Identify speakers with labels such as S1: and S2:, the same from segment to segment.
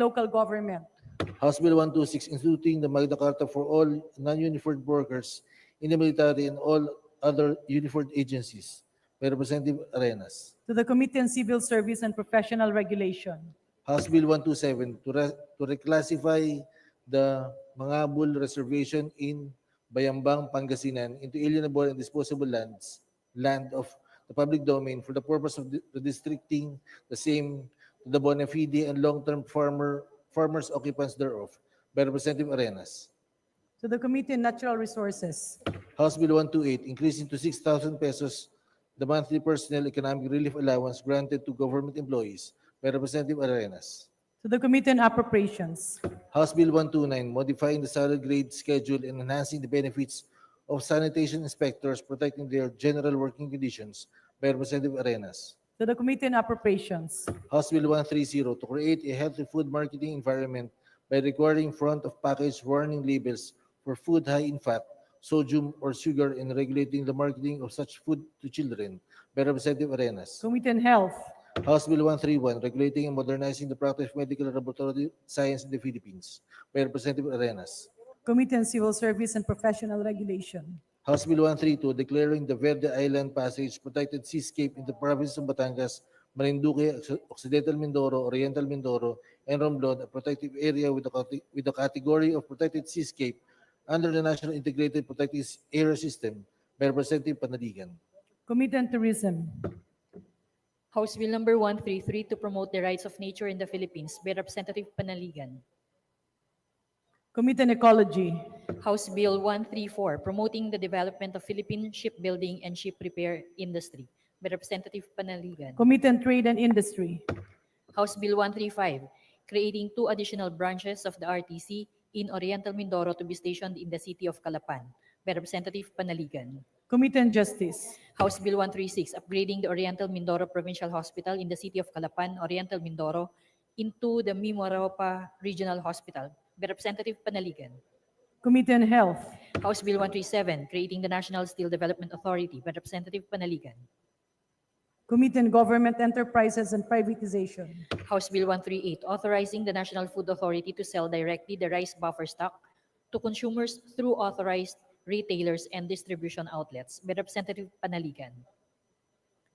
S1: local government.
S2: House Bill 126, instituting the Magna Carta for all non-uniformed workers in the military and all other uniformed agencies by Representative Arenas.
S1: To the Committee on Civil Service and Professional Regulation.
S2: House Bill 127, to re- to reclassify the Mangabul Reservation in Bayambang, Pangasinan into alienable and disposable lands, land of the public domain for the purpose of di- redistricting the same to the bona fide and long-term farmer, farmers occupants thereof by Representative Arenas.
S1: To the Committee on Natural Resources.
S2: House Bill 128, increasing to 6,000 pesos the monthly personal economic relief allowance granted to government employees by Representative Arenas.
S1: To the Committee on Appropriations.
S2: House Bill 129, modifying the salary grade schedule and enhancing the benefits of sanitation inspectors protecting their general working conditions by Representative Arenas.
S1: To the Committee on Appropriations.
S2: House Bill 130, to create a healthy food marketing environment by requiring front-of-package warning labels for food high in fat, sodium, or sugar and regulating the marketing of such food to children by Representative Arenas.
S1: Committee on Health.
S2: House Bill 131, regulating and modernizing the practice of medical laboratory science in the Philippines by Representative Arenas.
S1: Committee on Civil Service and Professional Regulation.
S2: House Bill 132, declaring the Verde Island Passage protected seascape in the province of Batangas, Marinduque, Occ- Occidental Mindoro, Oriental Mindoro, and Romblon, a protective area with the cate- with the category of protected seascape under the National Integrated Protected Area System by Representative Panaligan.
S1: Committee on Tourism.
S3: House Bill Number 133 to promote the rights of nature in the Philippines by Representative Panaligan.
S1: Committee on Ecology.
S3: House Bill 134 promoting the development of Philippine shipbuilding and ship repair industry by Representative Panaligan.
S1: Committee on Trade and Industry.
S3: House Bill 135 creating two additional branches of the RTC in Oriental Mindoro to be stationed in the city of Calapan by Representative Panaligan.
S1: Committee on Justice.
S3: House Bill 136, upgrading the Oriental Mindoro Provincial Hospital in the city of Calapan, Oriental Mindoro, into the Mimaropa Regional Hospital by Representative Panaligan.
S1: Committee on Health.
S3: House Bill 137, creating the National Steel Development Authority by Representative Panaligan.
S1: Committee on Government Enterprises and Privatization.
S3: House Bill 138, authorizing the National Food Authority to sell directly the rice buffer stock to consumers through authorized retailers and distribution outlets by Representative Panaligan.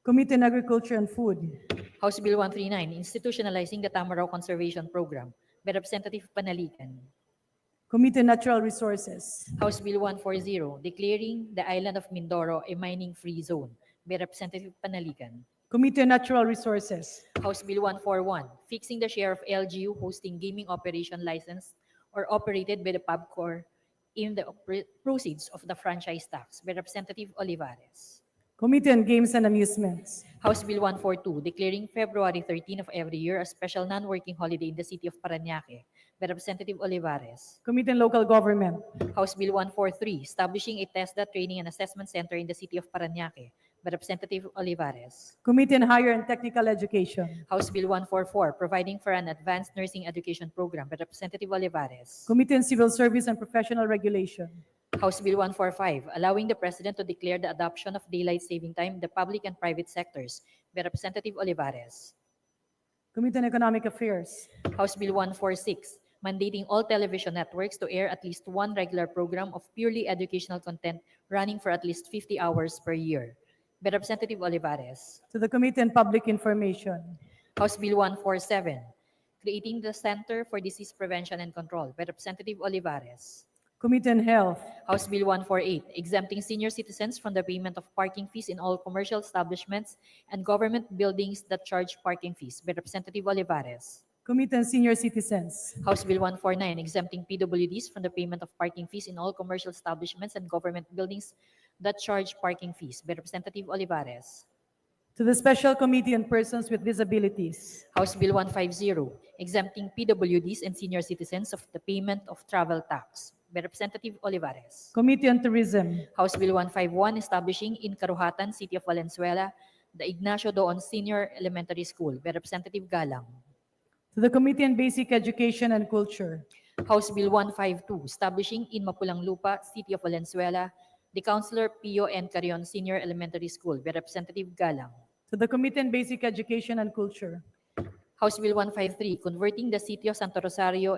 S1: Committee on Agriculture and Food.
S3: House Bill 139, institutionalizing the Tamaraw Conservation Program by Representative Panaligan.
S1: Committee on Natural Resources.
S3: House Bill 140, declaring the island of Mindoro a mining-free zone by Representative Panaligan.
S1: Committee on Natural Resources.
S3: House Bill 141, fixing the share of LGU hosting gaming operation licensed or operated by the PubCor in the oper- proceeds of the franchise tax by Representative Olivares.
S1: Committee on Games and Amusements.
S3: House Bill 142, declaring February 13 of every year a special non-working holiday in the city of Parañaque by Representative Olivares.
S1: Committee on Local Government.
S3: House Bill 143, establishing a TESDA training and assessment center in the city of Parañaque by Representative Olivares.
S1: Committee on Higher and Technical Education.
S3: House Bill 144, providing for an advanced nursing education program by Representative Olivares.
S1: Committee on Civil Service and Professional Regulation.
S3: House Bill 145, allowing the president to declare the adoption of daylight saving time in the public and private sectors by Representative Olivares.
S1: Committee on Economic Affairs.
S3: House Bill 146, mandating all television networks to air at least one regular program of purely educational content running for at least 50 hours per year by Representative Olivares.
S1: To the Committee on Public Information.
S3: House Bill 147, creating the Center for Disease Prevention and Control by Representative Olivares.
S1: Committee on Health.
S3: House Bill 148, exempting senior citizens from the payment of parking fees in all commercial establishments and government buildings that charge parking fees by Representative Olivares.
S1: Committee on Senior Citizens.
S3: House Bill 149, exempting PWDs from the payment of parking fees in all commercial establishments and government buildings that charge parking fees by Representative Olivares.
S1: To the Special Committee on Persons with Disabilities.
S3: House Bill 150, exempting PWDs and senior citizens of the payment of travel tax by Representative Olivares.
S1: Committee on Tourism.
S3: House Bill 151, establishing in Karuhatan, City of Valenzuela, the Ignacio Doon Senior Elementary School by Representative Galang.
S1: To the Committee on Basic Education and Culture.
S3: House Bill 152, establishing in Mapulang Lupa, City of Valenzuela, the Counselor Pio N. Carion Senior Elementary School by Representative Galang.
S1: To the Committee on Basic Education and Culture.
S3: House Bill 153, converting the Sitio Santo Rosario